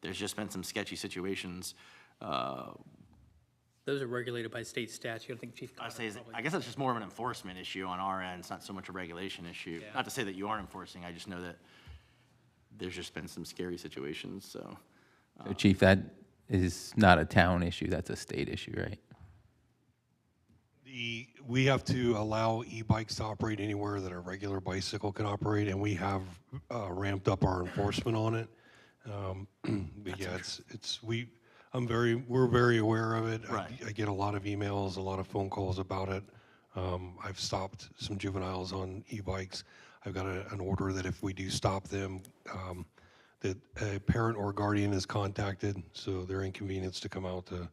There's just been some sketchy situations. uh, Those are regulated by state statute. I think Chief. I Connor say, is- probably- I guess it's just more of an enforcement issue on our end. It's not so much a regulation issue. Yeah. Not to say that you aren't enforcing, I just know that there's just been some scary situations, so. So Chief, that is not a town issue, that's a state issue, right? The, we have to allow e-bikes to operate anywhere that a regular bicycle can operate, and we have uh, ramped up our enforcement on it. Um, But yeah, it's, it's, we, I'm very, we're very aware of it. I- Right. I get a lot of emails, a lot of phone calls about it. Um, I've stopped some juveniles on e-bikes. I've got a- an order that if we do stop them, um, that a parent or guardian is contacted, so they're inconvenienced to come out to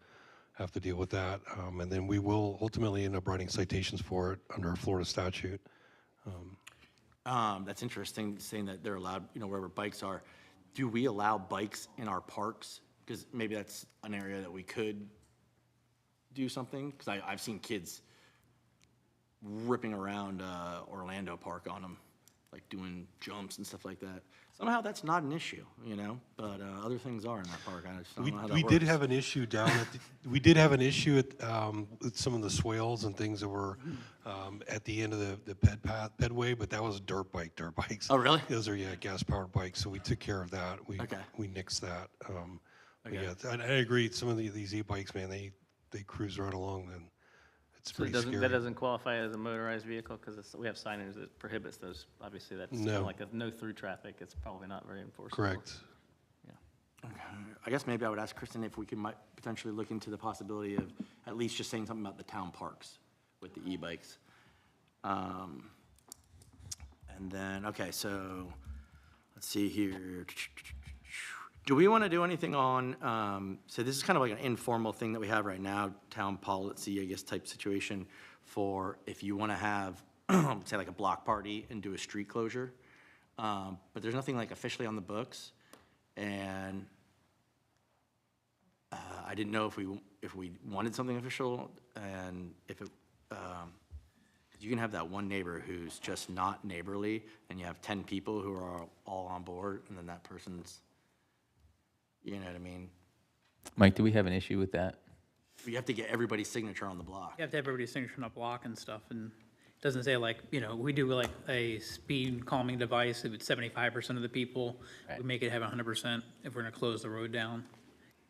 have to deal with that. Um, And then we will ultimately end up writing citations for it under a Florida statute. Um, that's interesting, saying that they're allowed, you know, wherever bikes are. Do we allow bikes in our parks? Because maybe that's an area that we could do something, because I, I've seen kids ripping around, uh, Orlando Park on them, like doing jumps and stuff like that. Somehow that's not an issue, you know, but, uh, other things are in that park, I just don't We, know how that we works. did have an issue down at, the- we did have an issue at, um, with some of the swales and things that were, um, at the end of the, the ped path, pedway, but that was dirt bike, dirt bikes. Oh, really? Those are, yeah, gas powered bikes, so we took care of that. We, Okay. we nixed that. Um, but yeah, and I agree, some of the- these e-bikes, man, they, they cruise right along and it's So it pretty doesn't, that scary. doesn't qualify as a motorized vehicle, because we have signage that prohibits those, obviously, that's kind No. of like a no-through traffic, it's probably not very enforceable. Correct. I guess maybe I would ask Kristen if we could might potentially look into the possibility of at least just saying something about the town parks with the e-bikes. Um, And then, okay, so, let's see here. Do we want to do anything on, um, so this is kind of like an informal thing that we have right now, town policy, I guess, type situation for if you want to have, say like a block party and do a street closure. Um, But there's nothing like officially on the books. And uh, I didn't know if we, if we wanted something official and if it, um, 'cause you can have that one neighbor who's just not neighborly and you have 10 people who are all on board and then that person's, you know what I mean? Mike, do we have an issue with that? You have to get everybody's signature on the block. You have to have everybody's signature on a block and stuff, and it doesn't say like, you know, we do like a speed calming device, if it's seventy-five percent of the people, we make it have hundred percent if we're gonna close the road down.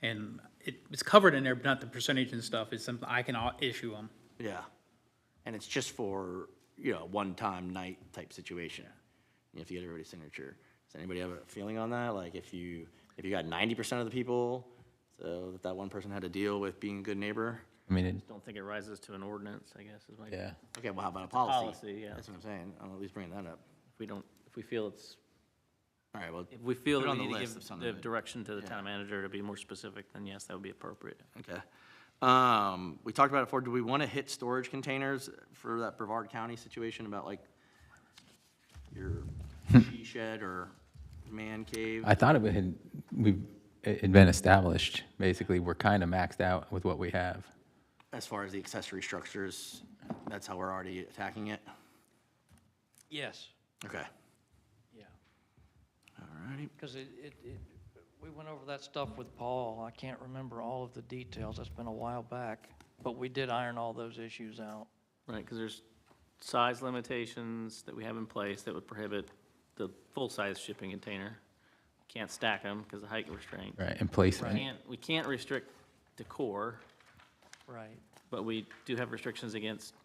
And it, it's covered in there, but not the percentage and stuff, it's something I can au- issue them. Yeah. And it's just for, you know, one-time night type situation. You have to get everybody's signature. Does anybody have a feeling on that? Like if you, if you got 90% of the people, so that that one person had to deal with being a good neighbor? I mean, it- Don't think it rises to an ordinance, I guess, is my, if yeah, Okay, well, how about a policy? policy, yeah. That's what I'm saying, I'm at least bringing that up. we don't, if we feel it's, All right, well, if we feel Put it that on we the need to list of give something the that- direction to the town manager to be more specific, then yes, that would be appropriate. okay. Um, we talked about it before, do we want to hit storage containers for that Brevard County situation about like your she shed or man cave? I thought it had, we've, it had been established, basically, we're kind of maxed out with what we have. As far as the accessory structures, that's how we're already attacking it? Yes, Okay, yeah, all righty. because it, it, it, we went over that stuff with Paul. I can't remember all of the details, that's been a while back, but we did iron all those issues out. Right, because there's size limitations that we have in place that would prohibit the full-size shipping container. Can't stack them because of height restraint. Right, and placement. Can't, we can't restrict decor, Right. but we do have restrictions against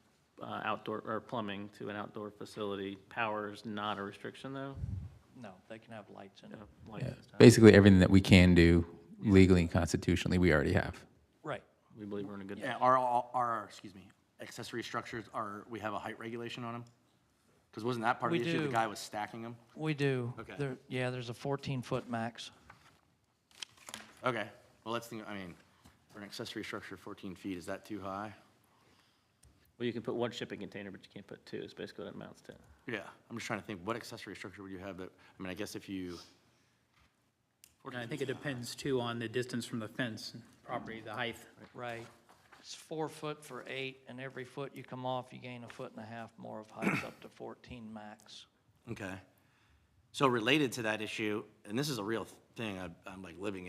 uh, outdoor, or plumbing to an outdoor facility. Power is not a restriction, though, No, they can have lights in it. uh, like Yeah. this time. Basically, everything that we can do legally and constitutionally, we already have. Right, We believe we're in a good, Yeah, are, all- are, excuse me, accessory structures, are, we have a height regulation on them? Because wasn't that part of We the issue, the do. guy was stacking them? we do. Okay. There, yeah, there's a fourteen-foot max. Okay, well, let's think, I mean, for an accessory structure, 14 feet, is that too high? well, you can put one shipping container, but you can't put two, is basically what it amounts to. Yeah, I'm just trying to think, what accessory structure would you have that, I mean, I guess if you, And I think it depends too on the distance from the fence, and property, the height. Right. It's four foot for eight, and every foot you come off, you gain a foot and a half more of height, up to fourteen max. okay. So related to that issue, and this is a real thing, I- I'm like living